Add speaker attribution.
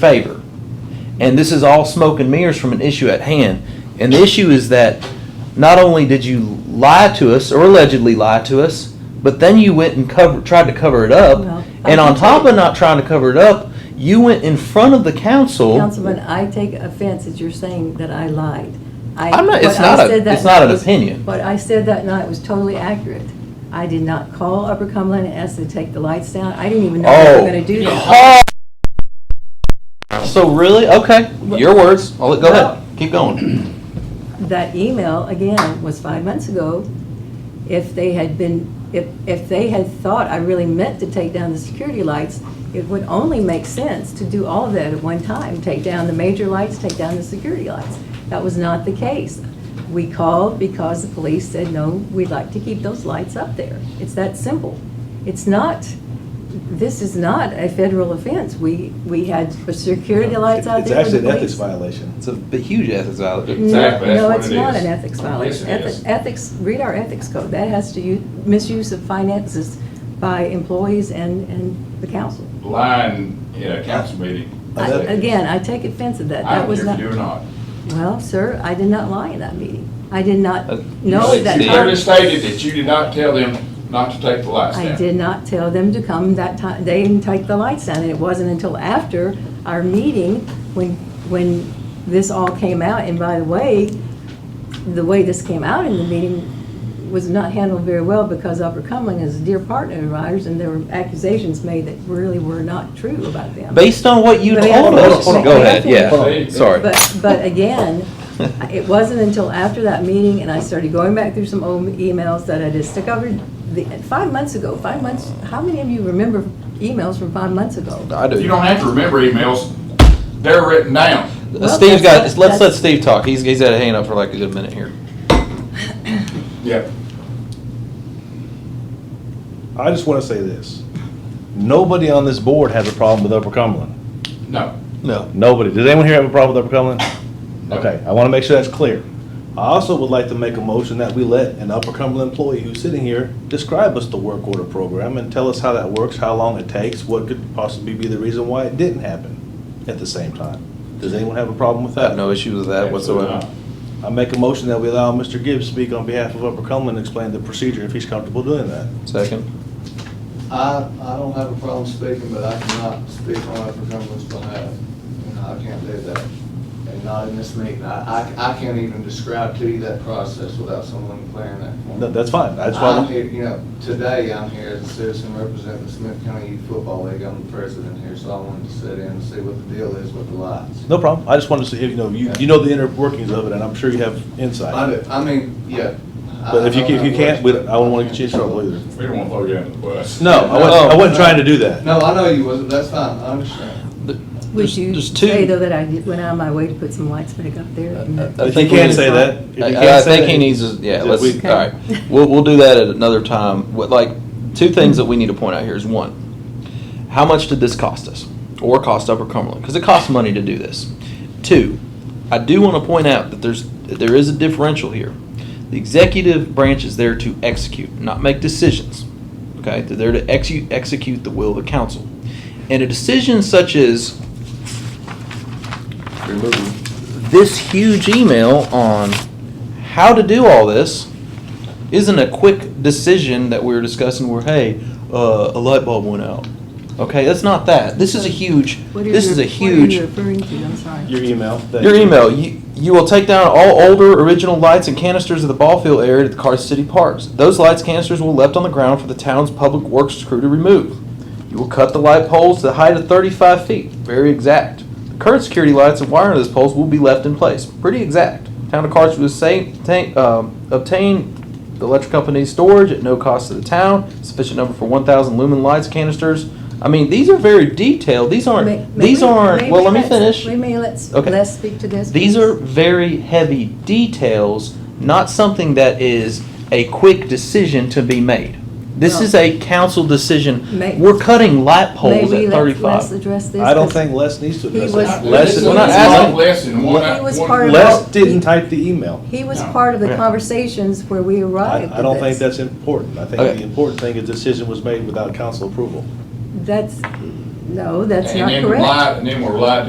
Speaker 1: favor. And this is all smoke and mirrors from an issue at hand. And the issue is that not only did you lie to us or allegedly lie to us, but then you went and cover, tried to cover it
Speaker 2: Well,
Speaker 1: up.
Speaker 2: I
Speaker 1: And on
Speaker 2: can
Speaker 1: top
Speaker 2: tell
Speaker 1: of
Speaker 2: you-
Speaker 1: not trying to cover it up, you went in front of the council.
Speaker 2: Councilman, I take offense that you're saying that I lied. I-
Speaker 1: I'm not- it's
Speaker 2: what I
Speaker 1: not a-
Speaker 2: said that
Speaker 1: it's not an
Speaker 2: night was-
Speaker 1: opinion.
Speaker 2: What I said that night was totally accurate. I did not call Upper Cumberland and ask them to take the lights down. I didn't even know they were gonna do that.
Speaker 1: Oh. So really? Okay, your words. I'll let, go ahead. Keep going.
Speaker 2: That email, again, was five months ago. If they had been, if, if they had thought I really meant to take down the security lights, it would only make sense to do all of that at one time, take down the major lights, take down the security lights. That was not the case. We called because the police said, no, we'd like to keep those lights up there. It's that simple. It's not, this is not a federal offense. We, we had security lights out
Speaker 3: It's
Speaker 2: there for the
Speaker 3: actually an
Speaker 2: police.
Speaker 3: ethics violation.
Speaker 1: It's a b- huge ethics violation.
Speaker 2: No,
Speaker 4: Exactly, that's
Speaker 2: no,
Speaker 4: what
Speaker 2: it's
Speaker 4: it
Speaker 2: not
Speaker 4: is.
Speaker 2: an ethics violation.
Speaker 4: Yes, it
Speaker 2: Ethi-
Speaker 4: is.
Speaker 2: Ethics, read our ethics code. That has to use, misuse of finances by employees and, and the council.
Speaker 4: lying in a council meeting.
Speaker 2: I-
Speaker 3: that-
Speaker 2: Uh, Again, I take offense at that.
Speaker 4: I
Speaker 2: That
Speaker 4: don't
Speaker 2: was
Speaker 4: care if
Speaker 2: not,
Speaker 4: you do or not.
Speaker 2: well, sir, I did not lie in that meeting. I did not
Speaker 1: Uh,
Speaker 2: know
Speaker 1: you
Speaker 2: at that
Speaker 4: You clearly
Speaker 2: time.
Speaker 4: stated that you did not tell them not to take the lights down.
Speaker 2: I did not tell them to come that time, they didn't take the lights down. And it wasn't until after our meeting, when, when this all came out. And by the way, the way this came out in the meeting was not handled very well because Upper Cumberland is a dear partner of ours and there were accusations made that really were not true about them.
Speaker 1: Based on what you
Speaker 2: But I
Speaker 1: told
Speaker 2: have
Speaker 1: us.
Speaker 2: to-
Speaker 1: Go ahead. Yeah.
Speaker 4: But-
Speaker 1: Sorry.
Speaker 2: But, but again, it wasn't until after that meeting and I started going back through some old emails that I discovered the, five months ago, five months, how many of you remember emails from five months ago?
Speaker 1: I do.
Speaker 4: You don't have to remember emails, they're written down.
Speaker 1: Uh,
Speaker 2: Well,
Speaker 1: Steve's got,
Speaker 2: that's-
Speaker 1: let's let
Speaker 2: that's-
Speaker 1: Steve talk. He's, he's had a hand up for like a good minute here.
Speaker 4: Yep.
Speaker 3: I just want to say this. Nobody on this board has a problem with Upper Cumberland.
Speaker 4: No.
Speaker 1: No.
Speaker 3: Nobody. Does anyone here have a problem with Upper Cumberland?
Speaker 4: No.
Speaker 3: Okay, I want to make sure that's clear. I also would like to make a motion that we let an Upper Cumberland employee who's sitting here describe us the work order program and tell us how that works, how long it takes, what could possibly be the reason why it didn't happen at the same time. Does anyone have a problem with
Speaker 1: I
Speaker 3: that?
Speaker 1: have no issue with that
Speaker 4: Absolutely
Speaker 1: whatsoever.
Speaker 3: I make a motion that we allow Mr. Gibbs speak on behalf of Upper Cumberland and explain the procedure if he's comfortable doing that.
Speaker 1: Second.
Speaker 5: I, I don't have a problem speaking, but I cannot speak on Upper Cumberland's behalf. And I can't do that, and not in this meeting. I, I, I can't even describe to you that process without someone clearing that for me.
Speaker 3: No, that's fine. That's why.
Speaker 5: I'm here, you know, today I'm here as a citizen representing the Smith County Youth Football League. I'm the president here, so I wanted to sit in and see what the deal is with the lights.
Speaker 3: No problem. I just wanted to see, if, you know, you, you know the inner workings of it, and I'm sure you have
Speaker 5: I,
Speaker 3: insight.
Speaker 5: do- I mean, yeah. I-
Speaker 3: But if you,
Speaker 5: I know
Speaker 3: if you
Speaker 5: how it
Speaker 3: can't,
Speaker 5: works.
Speaker 3: we, don't- I wouldn't want to get you in trouble either.
Speaker 4: We don't want to throw you under the bus.
Speaker 3: No, I wasn't, I wasn't trying to do that.
Speaker 5: No, I know you wasn't. That's fine. I understand.
Speaker 2: Would
Speaker 1: There's-
Speaker 2: you
Speaker 1: there's two-
Speaker 2: say though that I did- went out of my way to put some lights back up there?
Speaker 1: Uh, I
Speaker 3: If you
Speaker 1: think we
Speaker 3: can't
Speaker 1: need-
Speaker 3: say that, if you
Speaker 1: I- I
Speaker 3: can't say
Speaker 1: think
Speaker 3: that,
Speaker 1: he needs, to- yeah,
Speaker 3: just
Speaker 1: let's,
Speaker 3: we-
Speaker 1: all right. We'll, we'll do that at another time. What, like, two things that we need to point out here is one, how much did this cost us? Or cost Upper Cumberland? Because it costs money to do this. Two, I do want to point out that there's, that there is a differential here. The executive branch is there to execute, not make decisions. Okay, they're there to execute, execute the will of the council. And a decision such as this huge email on how to do all this isn't a quick decision that we were discussing where hey uh, a light bulb went out okay that's not that this is a huge
Speaker 2: What are
Speaker 1: this
Speaker 2: you-
Speaker 1: is a
Speaker 2: What are you
Speaker 1: huge
Speaker 2: referring to? I'm sorry.
Speaker 3: Your email. that-
Speaker 1: your email you, you will take down all older original lights and canisters of the ball field area at the car city parks those lights canisters will be left on the ground for the town's public works crew to remove you will cut the light poles to the height of 35 feet very exact the current security lights and wiring of those poles will be left in place pretty exact town of carthage will say, ta- um, obtain the electric company's storage at no cost to the town sufficient number for 1000 lumen lights canisters i mean these are very detailed these aren't
Speaker 2: May- may
Speaker 1: these
Speaker 2: we-
Speaker 1: aren't
Speaker 2: may
Speaker 1: well
Speaker 2: we
Speaker 1: let me
Speaker 2: let's-
Speaker 1: finish
Speaker 2: May may let's,
Speaker 1: Okay.
Speaker 2: let's speak to this.
Speaker 1: these
Speaker 2: please?
Speaker 1: are very heavy details, not something that is a quick decision to be made. This
Speaker 2: Well-
Speaker 1: is a council decision.
Speaker 2: May-
Speaker 1: We're cutting light poles
Speaker 2: Maybe
Speaker 1: at
Speaker 2: let's- Let's
Speaker 1: thirty-five.
Speaker 2: address this.
Speaker 3: I don't
Speaker 2: 'cause-
Speaker 3: think Les needs to
Speaker 2: He
Speaker 3: address
Speaker 2: was-
Speaker 3: that.
Speaker 4: Less
Speaker 3: Les
Speaker 4: than
Speaker 3: is
Speaker 1: We're
Speaker 4: one,
Speaker 1: not asking-
Speaker 4: less than one.
Speaker 2: He was part of-
Speaker 3: Les didn't type the email.
Speaker 2: He was
Speaker 4: No.
Speaker 2: part of the
Speaker 1: Yeah.
Speaker 2: conversations where we
Speaker 3: I,
Speaker 2: arrived
Speaker 3: I don't
Speaker 2: at
Speaker 3: think
Speaker 2: this.
Speaker 3: that's important. I think
Speaker 1: Okay.
Speaker 3: the important thing is decision was made without council approval.
Speaker 2: That's, no, that's not
Speaker 4: And then
Speaker 2: correct.
Speaker 4: lie- And then we're lied